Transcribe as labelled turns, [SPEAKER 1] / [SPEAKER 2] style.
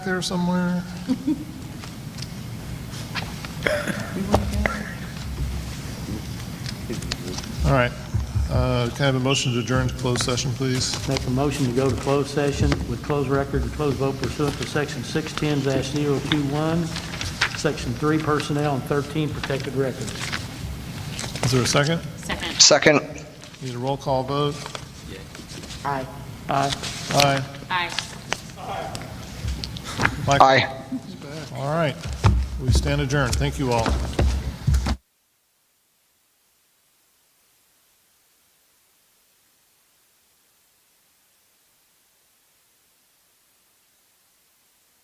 [SPEAKER 1] there somewhere? All right. Uh, Can I have a motion to adjourn to closed session, please?
[SPEAKER 2] Make a motion to go to closed session with closed record and closed vote pursuant to Section 610-021, Section 3 Personnel, and 13 Protected Records.
[SPEAKER 1] Is there a second?
[SPEAKER 3] Second.
[SPEAKER 4] Second.
[SPEAKER 1] Need a roll call vote?
[SPEAKER 3] Aye.
[SPEAKER 2] Aye.
[SPEAKER 1] Aye.
[SPEAKER 3] Aye.
[SPEAKER 1] Michael?
[SPEAKER 4] Aye.
[SPEAKER 1] All right. We stand adjourned. Thank you all.